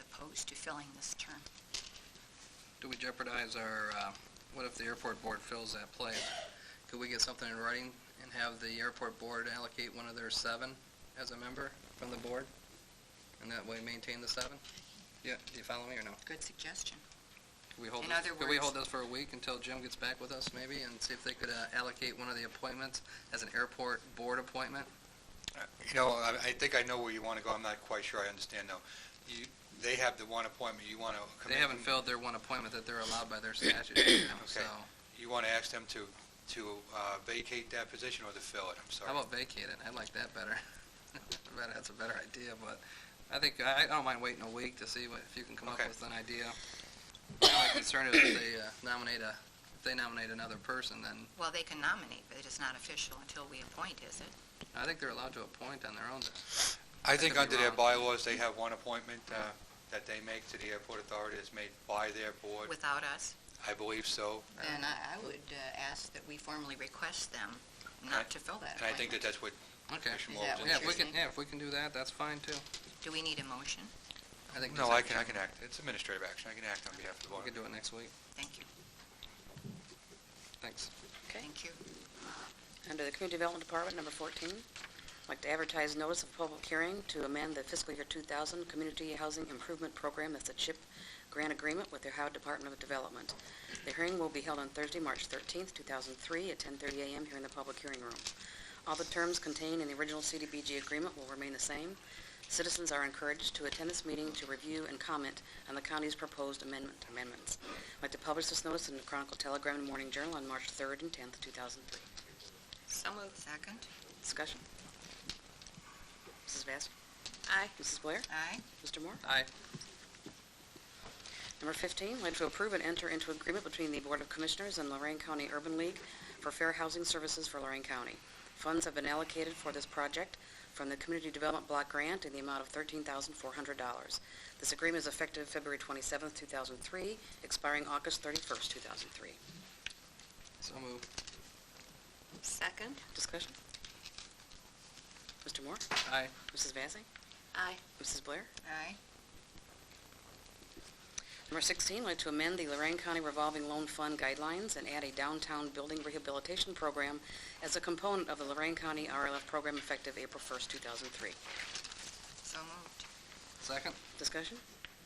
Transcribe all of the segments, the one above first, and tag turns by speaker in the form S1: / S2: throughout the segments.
S1: opposed to filling this term.
S2: Do we jeopardize our, uh, what if the airport board fills that place? Could we get something in writing and have the airport board allocate one of their seven as a member from the board? And that way maintain the seven? Yeah, do you follow me or no?
S1: Good suggestion.
S2: Could we hold
S1: In
S2: this-
S1: other
S2: Could we
S1: words-
S2: hold this for a week until Jim gets back with us maybe and see if they could uh, allocate one of the appointments as an airport board appointment?
S3: You know, I, I think I know where you want to go, I'm not quite sure I understand though. You, they have the one appointment, you want to come
S2: They
S3: in.
S2: haven't filled their one appointment that they're allowed by their statute, you know, so.
S3: You want to ask them to, to uh, vacate that position or to fill it, I'm sorry.
S2: How about vacate it? I like that better. I bet That's a better idea, but I think, I I don't mind waiting a week to see what, if you can come up
S3: Okay.
S2: with an idea. My concern is if they uh, nominate a, if they nominate another person, then
S1: Well, they can nominate, but it is not official until we appoint, is it?
S2: I think they're allowed to appoint on their own.
S3: I think
S2: could be
S3: under their
S2: wrong.
S3: bylaws, they have one appointment uh, that they make to the airport authority, that's made by their board,
S1: Without us?
S3: I believe so.
S1: Then I I would uh, ask that we formally request them
S3: Right.
S1: not to fill that
S3: And I think
S1: appointment.
S3: that that's what
S2: Okay.
S1: Is
S3: Commissioner Moore
S1: that
S3: was
S1: what
S2: Yeah,
S3: interested
S2: if
S1: you're
S2: we can,
S1: saying?
S2: yeah, if we can do that, that's fine too.
S1: Do we need a motion?
S2: I think.
S3: No,
S2: just
S3: I can, I
S2: action.
S3: can act, it's administrative action, I can act on behalf of the
S2: We
S3: board.
S2: can do it next week.
S1: Thank you.
S2: Thanks.
S4: Okay.
S1: Thank you.
S4: Under the Community Development Department, number 14, I'd like to advertise notice of public hearing to amend the fiscal year 2000 Community Housing Improvement Program, that's a CHIP grant agreement with the Ohio Department of Development. The hearing will be held on Thursday, March 13th, 2003, at 10:30 a.m. here in the public hearing room. All the terms contained in the original CDBG agreement will remain the same. Citizens are encouraged to attend this meeting to review and comment on the county's proposed amendment amendments. I'd like to publish this notice in the Chronicle Telegram and Morning Journal on March 3rd and 10th, 2003.
S1: So moved. Second?
S4: Discussion. Mrs. Vacy?
S1: Aye.
S4: Mrs. Blair?
S1: Aye.
S4: Mr. Moore?
S2: Aye.
S4: Number 15, like to approve and enter into agreement between the Board of Commissioners and Lorraine County Urban League for fair housing services for Lorraine County. Funds have been allocated for this project from the Community Development Block Grant in the amount of $13,400. This agreement is effective February 27, 2003, expiring August 31, 2003.
S2: So move.
S1: Second?
S4: Discussion. Mr. Moore?
S2: Aye.
S4: Mrs. Vacy?
S1: Aye.
S4: Mrs. Blair?
S1: Aye.
S4: Number 16, I'd like to amend the Lorraine County Revolving Loan Fund guidelines and add a downtown building rehabilitation program as a component of the Lorraine County RLF program effective April 1st, 2003.
S1: So moved.
S2: Second?
S4: Discussion?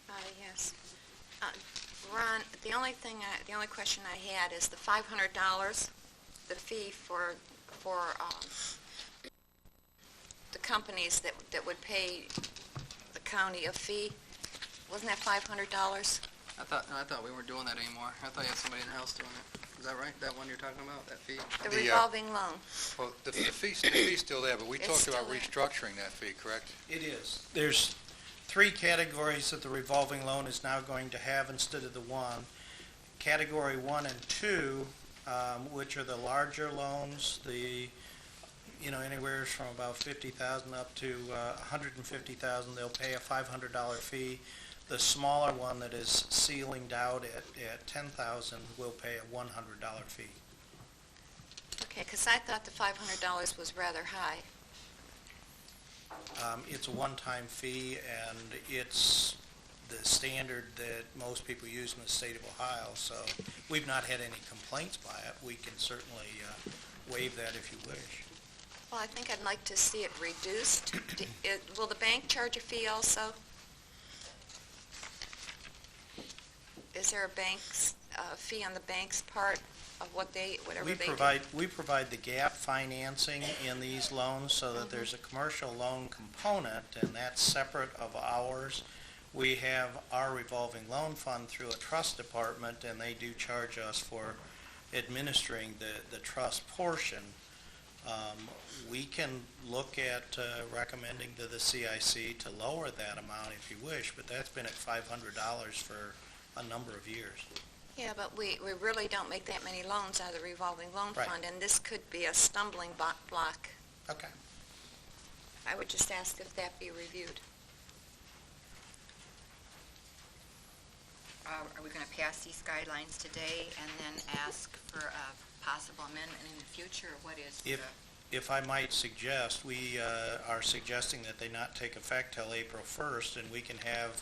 S5: Uh, Yes. Uh, Ron, the only thing, I- the only question I had is the $500, the fee for, for um, the companies that, that would pay the county a fee, wasn't that $500?
S2: I thought, I thought we weren't doing that anymore. I thought you had somebody in the house doing it. Is that right? That one you're talking about, that fee?
S5: The
S3: The, uh,
S5: revolving loan?
S3: Well, the the fee's, the fee's still there, but we
S5: It's
S3: talked about
S5: still
S3: restructuring that fee, correct?
S6: It is. There's three categories that the revolving loan is now going to have instead of the one. Category one and two, um, which are the larger loans, the, you know, anywhere from about fifty thousand up to a hundred and fifty thousand, they'll pay a five hundred dollar fee. The smaller one that is ceilinged out at, at ten thousand will pay a one hundred dollar fee.
S5: Okay, because I thought the $500 was rather high.
S6: Um, It's a one-time fee, and it's the standard that most people use in the state of Ohio, so we've not had any complaints by it. We can certainly uh, waive that if you wish.
S5: Well, I think I'd like to see it reduced. Do- it- Will the bank charge a fee also? Is there a bank's, uh fee on the bank's part of what they, whatever
S6: We
S5: they do?
S6: provide, we provide the gap financing in these loans so that there's a
S5: Mm-hmm.
S6: commercial loan component, and that's separate of ours. We have our revolving loan fund through a trust department, and they do charge us for administering the, the trust portion. Um, We can look at uh, recommending to the CIC to lower that amount if you wish, but that's been at $500 for a number of years.
S5: Yeah, but we, we really don't make that many loans out of the revolving loan
S6: Right.
S5: fund, and this could be a stumbling bo- block.
S6: Okay.
S5: I would just ask if that be reviewed.
S1: Uh, Are we going to pass these guidelines today and then ask for a possible amendment in the future? or What is the...
S6: If- If I might suggest, we uh, are suggesting that they not take effect till April 1st, and we can have